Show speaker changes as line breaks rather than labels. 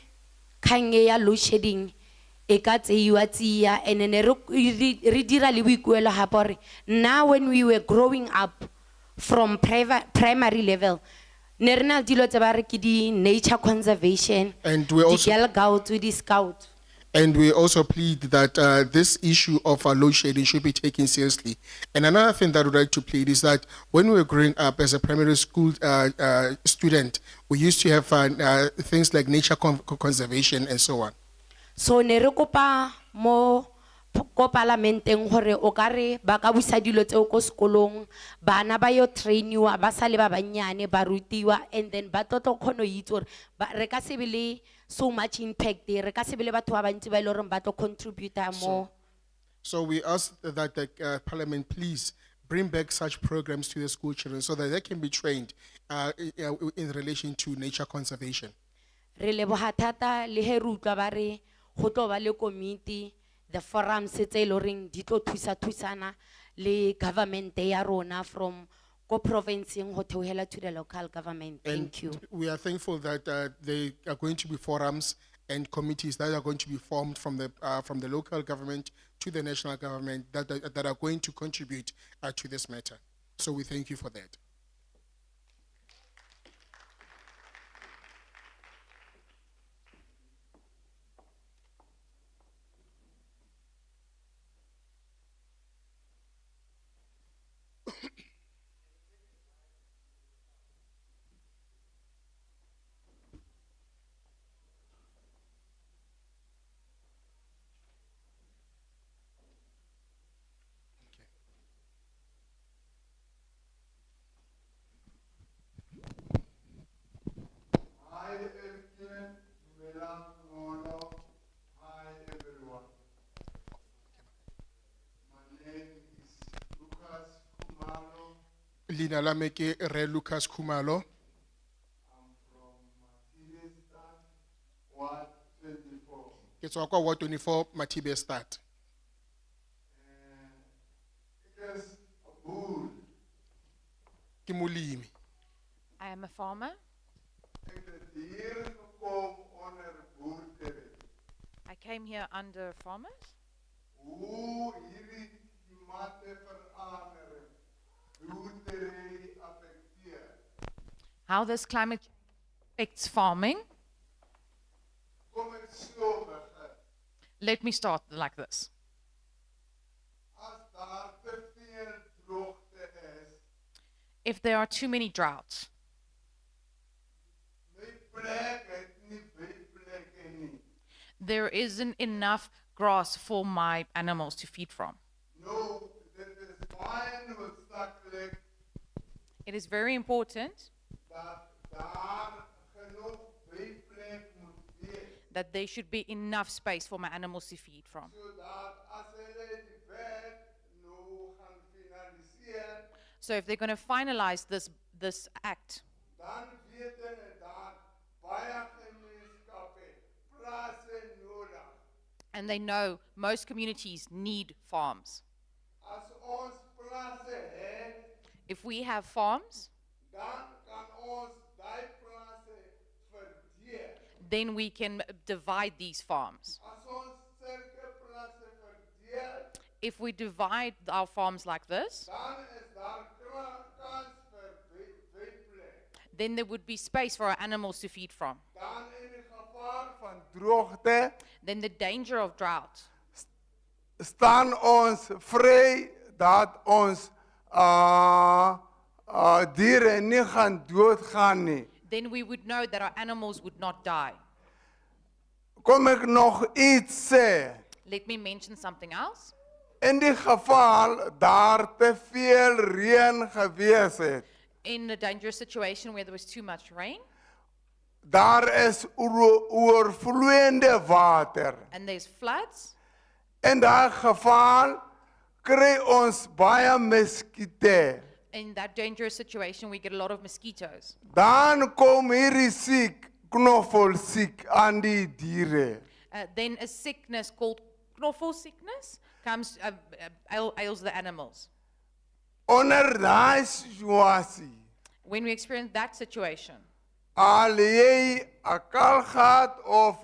kgang e ya load shedding e ka tseiwa tsia and then re re- re dira le boikuelo gape gore nna when we were growing up from priva- primary level ne re na le dilo tse ba re ke di-nature conservation
And we also-
di-girl guides, di-scout
And we also plead that uh, this issue of uh, load shedding should be taken seriously. And another thing that I'd like to plead is that when we were growing up as a primary school uh, uh, student, we used to have uh, uh, things like nature con- conservation and so on.
so ne re kopa mo p- ko palamenteng gore o ka re ba ka busa dilo tseo ko sekolong bana ba yo trainiwa ba sale ba bannyane ba rutiwa and then ba tlotlo kgona go itse gore ba- re ka se be le so much impact re ka se be le batho ba bantsi ba e le goreng ba tlo contributa mo
So we ask that the uh, Parliament please bring back such programs to the school children so that they can be trained uh, i- uh, in relation to nature conservation.
re leboga thata le he re utlwa ba re go tlo ba le komiti the forums tse e le goreng di tlo thusa-thusana le government-e ya rona from ko provinceng go theogela to the local government thank you
And we are thankful that uh, they are going to be forums and committees that are going to be formed from the, uh, from the local government to the national government that, uh, that that are going to contribute uh, to this matter. So we thank you for that.
Hi, Epstein, Madam Mono. Hi, everyone. My name is Lucas Kumalo.
Lina lame ke Re Lucas Kumalo.
I'm from Martinistan, Ward 24.
Ke tswa kwa Ward 24 Matibe Stad.
And it is a bull.
Ke molemi.
I am a farmer.
It is the year to come on a bull table.
I came here under farmers.
Who here is matter for honor? Rootery affected.
How this climate change affects farming.
Kom ek so begin.
Let me start like this.
As daar te veel droogte is,
If there are too many droughts,
my plek het nie baie plekke nie.
there isn't enough grass for my animals to feed from.
Nou, dit is baie noodsaaklik
It is very important
dat daar genoeg byplek moet wees
that there should be enough space for my animals to feed from.
sodat as hulle die wet nou gaan finaliseer,
So if they're going to finalize this this act,
dan weet hulle dat baie gemeenskappe plase nodig.
and they know most communities need farms.
As ons plase het,
If we have farms,
dan kan ons daai plase verdeel.
then we can divide these farms.
As ons sulke plase verdeel,
If we divide our farms like this,
dan is daar kra- kans vir wy- wyplek.
then there would be space for our animals to feed from.
Dan in die gevaar van droogte
Then the danger of drought,
staan ons vry dat ons uh uh diere nie gaan doodgaan nie.
then we would know that our animals would not die.
Kom ek nog iets sê?
Let me mention something else.
In die geval daar te veel reën gewees het,
In a dangerous situation where there was too much rain
Daar is oor- oorvloeiende water.
and there's floods,
In daai geval kry ons baie muskiete.
in that dangerous situation, we get a lot of mosquitoes.
Dan kom hierdie siek, knoffel siek aan die diere.
Uh, then a sickness called knoffel sickness comes, uh, uh, ail- ails the animals.
Onder daai situasie,
When we experience that situation,
al jy 'n kalgaat of